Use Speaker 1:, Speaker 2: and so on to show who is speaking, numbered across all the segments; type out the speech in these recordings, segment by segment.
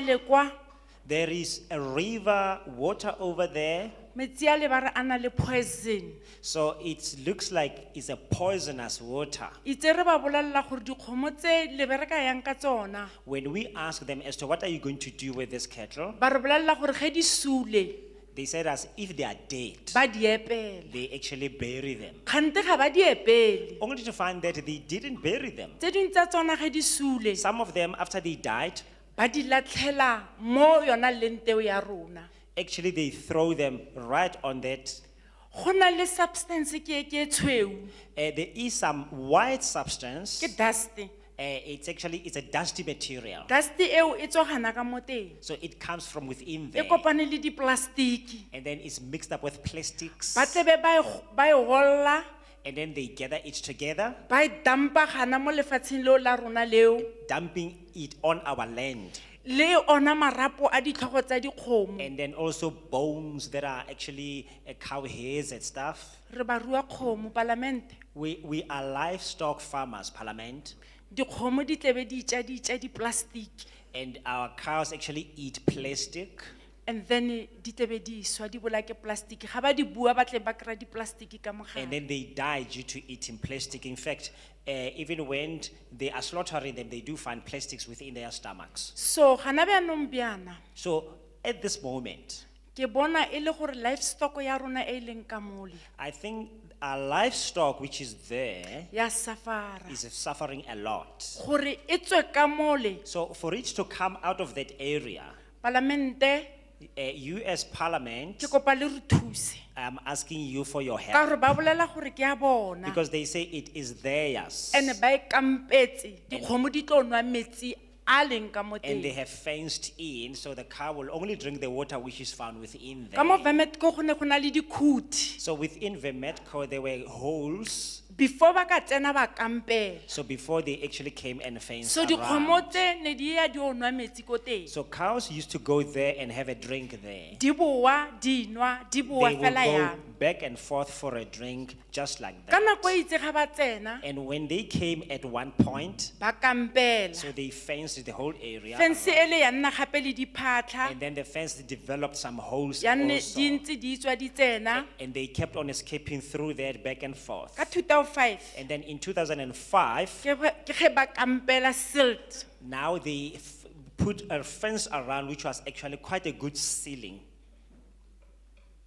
Speaker 1: le kwa
Speaker 2: There is a river water over there,
Speaker 1: metsi a le ba re a na le poison
Speaker 2: so it looks like it's a poisonous water.
Speaker 1: itse re ba bolelela gore dikgomo tse le bereka yang ka tsona
Speaker 2: When we ask them as to what are you going to do with this cattle,
Speaker 1: ba re bolelela gore ge di sule
Speaker 2: they said as if they are dead,
Speaker 1: ba di epela
Speaker 2: they actually bury them.
Speaker 1: kgante ga ba di epele
Speaker 2: Only to find that they didn't bury them.
Speaker 1: tse dingwe tsa tsona ge di sule
Speaker 2: Some of them, after they died,
Speaker 1: ba di latlhela mo yona leng teo ya rona
Speaker 2: actually they throw them right on that.
Speaker 1: go na le substance ke e ke e tshweu
Speaker 2: Uh, there is some white substance.
Speaker 1: ke dust
Speaker 2: Uh, it's actually it's a dusty material,
Speaker 1: dust eo e tswagana ka mo teng
Speaker 2: so it comes from
Speaker 1: e
Speaker 2: within there,
Speaker 1: kopane le diplastiki
Speaker 2: and then it's mixed up with plastics,
Speaker 1: ba tlebe ba e go- ba e golla
Speaker 2: and then they gather it together,
Speaker 1: ba e dampa gana mo lefatsheng leo la rona leo
Speaker 2: dumping it on our land,
Speaker 1: le ona marapo a ditlhogo tsa dikgomo
Speaker 2: and then also bones that are actually uh, cow hairs and stuff.
Speaker 1: re ba rua kgomo palamente
Speaker 2: We we are livestock farmers, Parliament,
Speaker 1: dikgomo di tlebe di ja di ja diplastiki
Speaker 2: and our cows actually eat plastic.
Speaker 1: and then di tlebe di swa di bola ke plastiki ga ba di bua ba tle ba kry-a diplastiki ka
Speaker 2: And
Speaker 1: mogare
Speaker 2: then they die due to eating plastic. In fact, uh, even when they are slaughtering them, they do find plastics within their stomachs.
Speaker 1: so gana bjaanong bjana
Speaker 2: So at this moment,
Speaker 1: ke bona e le gore livestock ya rona e e leng ka mole
Speaker 2: I think our livestock, which is there,
Speaker 1: ya safara
Speaker 2: is suffering a lot.
Speaker 1: gore e tswe ka mole
Speaker 2: So for it to come out of that area,
Speaker 1: palamente
Speaker 2: uh, you as Parliament,
Speaker 1: ke kopa le re thuse
Speaker 2: I'm asking you for your
Speaker 1: ka
Speaker 2: help
Speaker 1: gore ba bolela gore ke ya bona
Speaker 2: because they say it is theirs,
Speaker 1: and ba e kampetse dikgomo di tlo nwa metsi a leng ka mo
Speaker 2: and they
Speaker 1: teng
Speaker 2: have fenced in, so the cow will only drink the water which is found within
Speaker 1: ka mo
Speaker 2: there.
Speaker 1: vametko go ne go na le dikhuthi
Speaker 2: So within Vemetco, there were holes.
Speaker 1: before ba ka tsena ba kampela
Speaker 2: So before they actually came and fenced
Speaker 1: so dikgomo
Speaker 2: around.
Speaker 1: tse ne di ya di o nwa metsi ko teng
Speaker 2: So cows used to go there and have a drink there.
Speaker 1: di boa di nwa di boa
Speaker 2: They will
Speaker 1: fela
Speaker 2: go
Speaker 1: yalo
Speaker 2: back and forth for a drink, just like
Speaker 1: ka
Speaker 2: that.
Speaker 1: nako e itse ga ba tsena
Speaker 2: And when they came at one point,
Speaker 1: ba kampela
Speaker 2: so they fenced the whole area.
Speaker 1: fence e le ya nna gape le diphatlha
Speaker 2: And then the fence developed some holes
Speaker 1: ya nne
Speaker 2: also.
Speaker 1: di ntse di tswa di tsena
Speaker 2: And they kept on escaping through that back and forth.
Speaker 1: ka 2005
Speaker 2: And then in 2005,
Speaker 1: ke ge- ke ge ba kampela silt
Speaker 2: now they f- put a fence around, which was actually quite a good ceiling.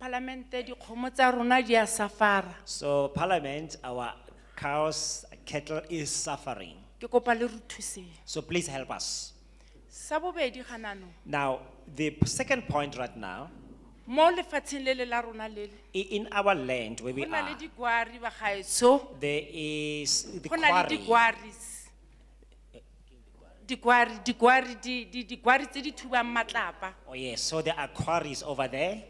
Speaker 1: palamente dikgomo tsa rona di a safara
Speaker 2: So parliament, our cows, cattle is suffering.
Speaker 1: ke kopa le re thuseng
Speaker 2: So please help us.
Speaker 1: sa bobedi ganano
Speaker 2: Now, the second point right now,
Speaker 1: mo lefatsheng le le la rona lele
Speaker 2: i- in our land where we
Speaker 1: go na le
Speaker 2: are,
Speaker 1: digwari bagaetso
Speaker 2: there is the
Speaker 1: go na le
Speaker 2: quarry.
Speaker 1: digwaris digwari digwari di- di- digwari tse di thubang matlapa
Speaker 2: Oh yes, so there are quarries over there.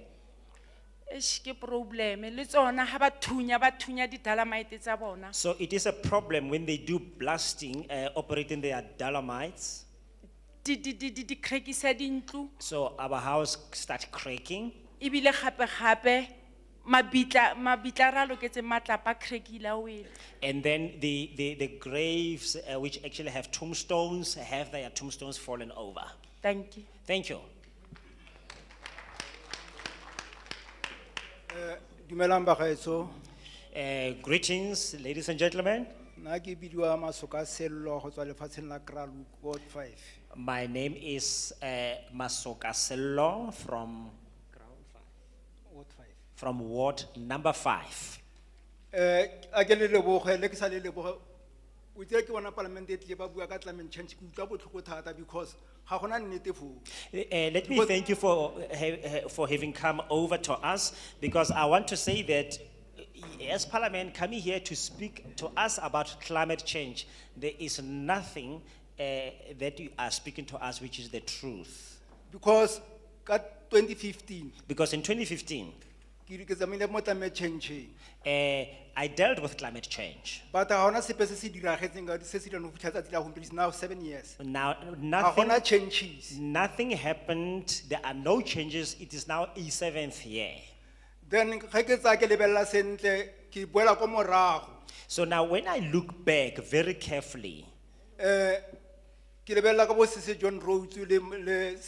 Speaker 1: eish ke probleme le tsona ga ba thunya ba thunya didalamite tsa bona
Speaker 2: So it is a problem when they do blasting, uh, operating their dolomites.
Speaker 1: di di- di- di- di krekisa dintlo
Speaker 2: So our house start cracking
Speaker 1: ebile gape-gape mabitla mabitla a re a loketseng matlapa a krekile a wele
Speaker 2: and then the, the, the graves uh, which actually have tombstones have their tombstones fallen over.
Speaker 1: thank you
Speaker 2: Thank you.
Speaker 3: Dumelang bagaetso,
Speaker 2: Uh, greetings, ladies and gentlemen.
Speaker 3: na ki bidiwa Masoka Sello ho tswa lefatsheng la Kraaluk Ward Five.
Speaker 2: My name is uh, Masoka Sello from,
Speaker 3: Ward Five.
Speaker 2: from Ward Number Five.
Speaker 3: Eh, akele leboge, le ke sa le leboge, o tsere ke bona palamente e tlile ba bua ka climate change, ke utlwa botlhoko thata because ha gona nnete foo.
Speaker 2: Uh, let me
Speaker 3: But-
Speaker 2: thank you for, uh, ha- ha- for having come over to us because I want to say that uh, as Parliament coming here to speak to us about climate change, there is nothing uh, that you are speaking to us which is the truth.
Speaker 3: Because ka twenty fifteen,
Speaker 2: Because in 2015,
Speaker 3: ki ke zamile mo climate change,
Speaker 2: uh, I dealt with climate change.
Speaker 3: but ha hona sepe se se diragetseng ka se se dirang ho fitlha tsatsi la gompieno, it's now seven years.
Speaker 2: Now,
Speaker 3: Ha
Speaker 2: nothing,
Speaker 3: gona changes.
Speaker 2: nothing happened. There are no changes. It is now a seventh year.
Speaker 3: Then ge ke tsaya ke lebelela sentle, ke boela ko morago.
Speaker 2: So now, when I look back very carefully,
Speaker 3: Eh, ke lebelela ka bo sese John Rhodes le, le